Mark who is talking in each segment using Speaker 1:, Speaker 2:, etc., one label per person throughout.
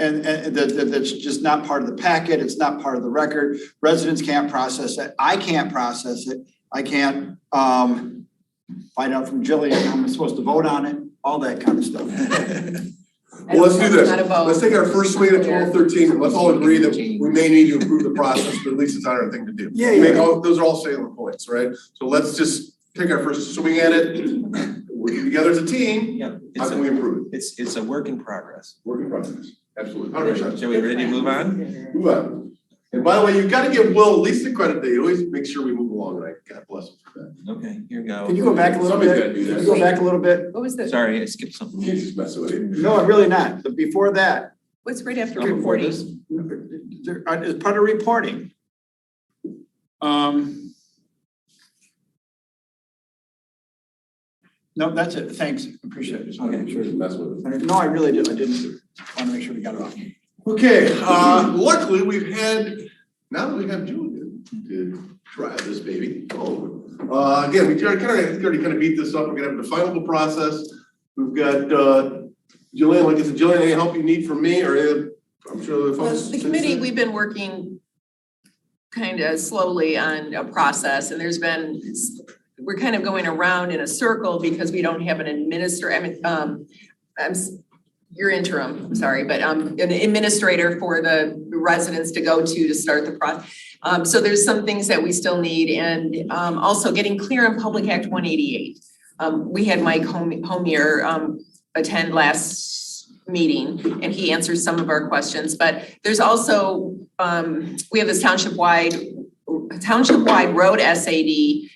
Speaker 1: And, and that, that, that's just not part of the packet, it's not part of the record. Residents can't process it, I can't process it, I can't, um, find out from Jillian how I'm supposed to vote on it, all that kind of stuff.
Speaker 2: Well, let's do this.
Speaker 3: Not a vote.
Speaker 2: Let's take our first swing at twelve thirteen, and let's all agree that we may need to improve the process, but at least it's not our thing to do.
Speaker 1: Yeah,
Speaker 2: I mean,
Speaker 1: yeah.
Speaker 2: all- those are all salient points, right? So let's just take our first swing at it, working together as a team,
Speaker 4: Yeah,
Speaker 2: how
Speaker 4: it's
Speaker 2: can we
Speaker 4: a,
Speaker 2: improve it?
Speaker 4: it's, it's a work in progress.
Speaker 2: Working process, absolutely. All right, Sean.
Speaker 4: Shall we ready to move on?
Speaker 2: Move on. And by the way, you've gotta give Will at least the credit that he always makes sure we move along, right? God bless him for that.
Speaker 4: Okay, here we go.
Speaker 1: Can you go back a little
Speaker 2: Somebody's
Speaker 1: bit?
Speaker 2: gotta do
Speaker 1: Can you
Speaker 2: that.
Speaker 1: go back a little bit?
Speaker 3: What was the,
Speaker 4: Sorry, I skipped something.
Speaker 2: He's just messing with you.
Speaker 1: No, I'm really not, but before that.
Speaker 3: what's right after
Speaker 4: Number four,
Speaker 3: reporting?
Speaker 4: this-
Speaker 1: There, uh, it's part of reporting. Um. No, that's it, thanks, appreciate it.
Speaker 2: I'm sure he's messing with us.
Speaker 1: No, I really did, I didn't, wanna make sure we got it off.
Speaker 2: Okay, uh, luckily, we've had, now that we have Julian to drive this baby forward. Uh, again, we already kind of, already kind of beat this up, we're gonna have the final process. We've got, uh, Julian, like I said, Julian, any help you need from me, or uh, I'm sure the
Speaker 3: Well,
Speaker 2: folks.
Speaker 3: the committee, we've been working kind of slowly on a process and there's been, we're kind of going around in a circle because we don't have an administrator, I mean, um, I'm, s- you're interim, I'm sorry, but um, an administrator for the residents to go to to start the process. Um, so there's some things that we still need and um, also getting clear on Public Act one eighty-eight. Um, we had Mike Hom- Homier um, attend last meeting and he answered some of our questions, but there's also, um, we have this township-wide, township-wide road SAD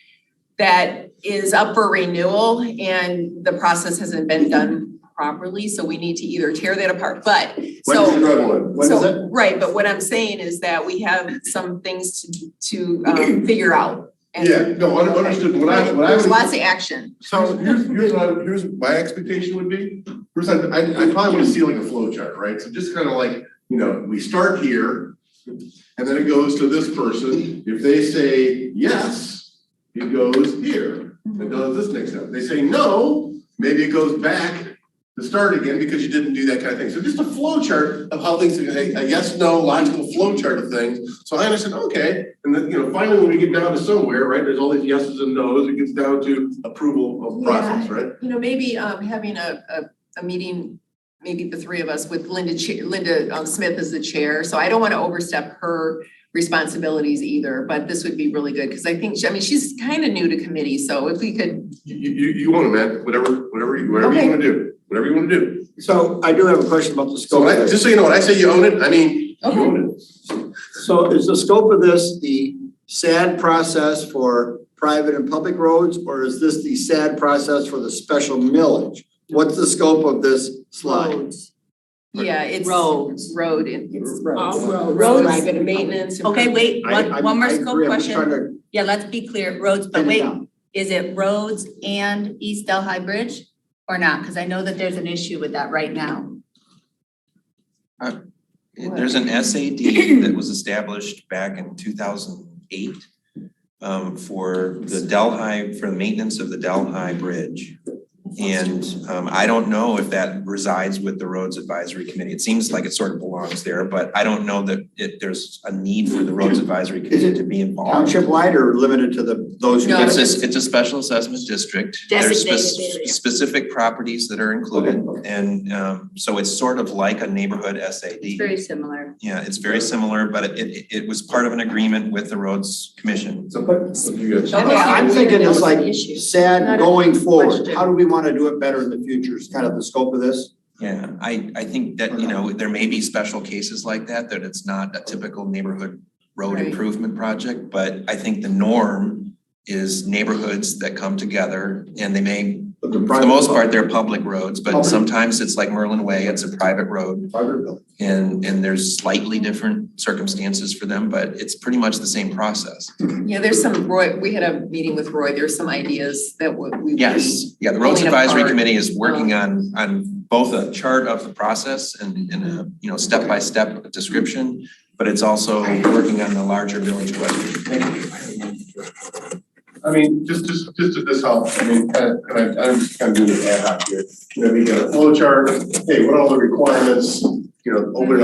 Speaker 3: that is up for renewal and the process hasn't been done properly, so we need to either tear that apart, but, so.
Speaker 2: When's the drive one? When is it?
Speaker 3: So, right, but what I'm saying is that we have some things to, to, um, figure out. and-
Speaker 2: Yeah, no, un- understood, what I, what I
Speaker 3: There's
Speaker 2: was.
Speaker 3: lots of action.
Speaker 2: So here's, here's what I, here's what my expectation would be, first, I, I I probably wanna see like a flow chart, right? So just kind of like, you know, we start here, and then it goes to this person, if they say yes, it goes here, it does this next step, they say no, maybe it goes back to start again because you didn't do that kind of thing, so just a flow chart of how things, a, a yes, no logical flow chart of things. So I understand, okay, and then, you know, finally, when we get down to somewhere, right, there's all these yeses and nos, it gets down to approval of process, right?
Speaker 3: You know, maybe, um, having a, a, a meeting, maybe the three of us with Linda, Ch- Linda um, Smith as the chair. So I don't want to overstep her responsibilities either, but this would be really good because I think, she- I mean, she's kind of new to committee, so if we could,
Speaker 2: You, you, you- you want it, man, whatever, whatever, you whatever you
Speaker 3: Okay.
Speaker 2: wanna do, whatever you wanna do.
Speaker 5: So I do have a question about the
Speaker 2: So
Speaker 5: scope
Speaker 2: when I,
Speaker 5: of this.
Speaker 2: just so you know, when I say you own it, I mean, you
Speaker 3: Okay.
Speaker 2: own it.
Speaker 5: So is the scope of this the SAD process for private and public roads? Or is this the SAD process for the special millage? What's the scope of this slide?
Speaker 3: yeah, it's.
Speaker 6: Roads.
Speaker 3: Road and.
Speaker 6: All
Speaker 3: Roads,
Speaker 6: roads.
Speaker 3: maintenance.
Speaker 6: Okay, wait,
Speaker 5: I-
Speaker 6: one,
Speaker 5: I'm-
Speaker 6: one more
Speaker 5: I
Speaker 6: scope
Speaker 5: agree. I'm just
Speaker 6: question.
Speaker 5: trying to
Speaker 6: Yeah, let's be clear, roads, but
Speaker 5: pin it
Speaker 6: wait,
Speaker 5: down.
Speaker 6: is it roads and East Delhi Bridge or not? Cause I know that there's an issue with that right now.
Speaker 4: There's an SAD that was established back in two thousand eight um, for the Delhi, for the maintenance of the Delhi Bridge. And um, I don't know if that resides with the Roads Advisory Committee. It seems like it sort of belongs there, but I don't know that it, there's a need for the Roads Advisory Committee to be involved.
Speaker 5: Township wide or limited to the, those who?
Speaker 3: No,
Speaker 4: It's a, it's a special assessment district. There's spec-
Speaker 6: Designated area.
Speaker 4: specific properties that are included and um so it's sort of like a neighborhood SAD.
Speaker 6: It's very similar.
Speaker 4: Yeah, it's very similar, but it it it was part of an agreement with the roads commission.
Speaker 2: So, but, so you guys.
Speaker 3: Okay.
Speaker 5: I'm thinking it's like
Speaker 6: Issue.
Speaker 5: SAD
Speaker 6: Not a
Speaker 5: going forward.
Speaker 6: question.
Speaker 5: How do we want to do it better in the future is kind of the scope of this?
Speaker 4: Yeah, I I think that, you know, there may be special cases like that, that it's not a typical neighborhood road
Speaker 3: Right.
Speaker 4: improvement project, but I think the norm is neighborhoods that come together and they may,
Speaker 5: But the
Speaker 4: for
Speaker 5: private-
Speaker 4: the most part, they're public roads, but
Speaker 5: Public.
Speaker 4: sometimes it's like Merlin Way, it's a private road.
Speaker 5: Private building.
Speaker 4: And and there's slightly different circumstances for them, but it's pretty much the same process.
Speaker 3: Yeah, there's some, Roy, we had a meeting with Roy, there's some ideas that we. we-
Speaker 4: Yes, yeah, the Roads
Speaker 3: Pulling
Speaker 4: Advisory
Speaker 3: apart.
Speaker 4: Committee is working on on both a chart of the process and and a, you know, step-by-step description. But it's also working on the larger village question.
Speaker 2: I mean, just, just, just at this helps, I mean, kind of, and I, I'm just kind of doing it ad hoc here. You know, we got a flow chart, hey, what are all the requirements?
Speaker 5: you know, open it up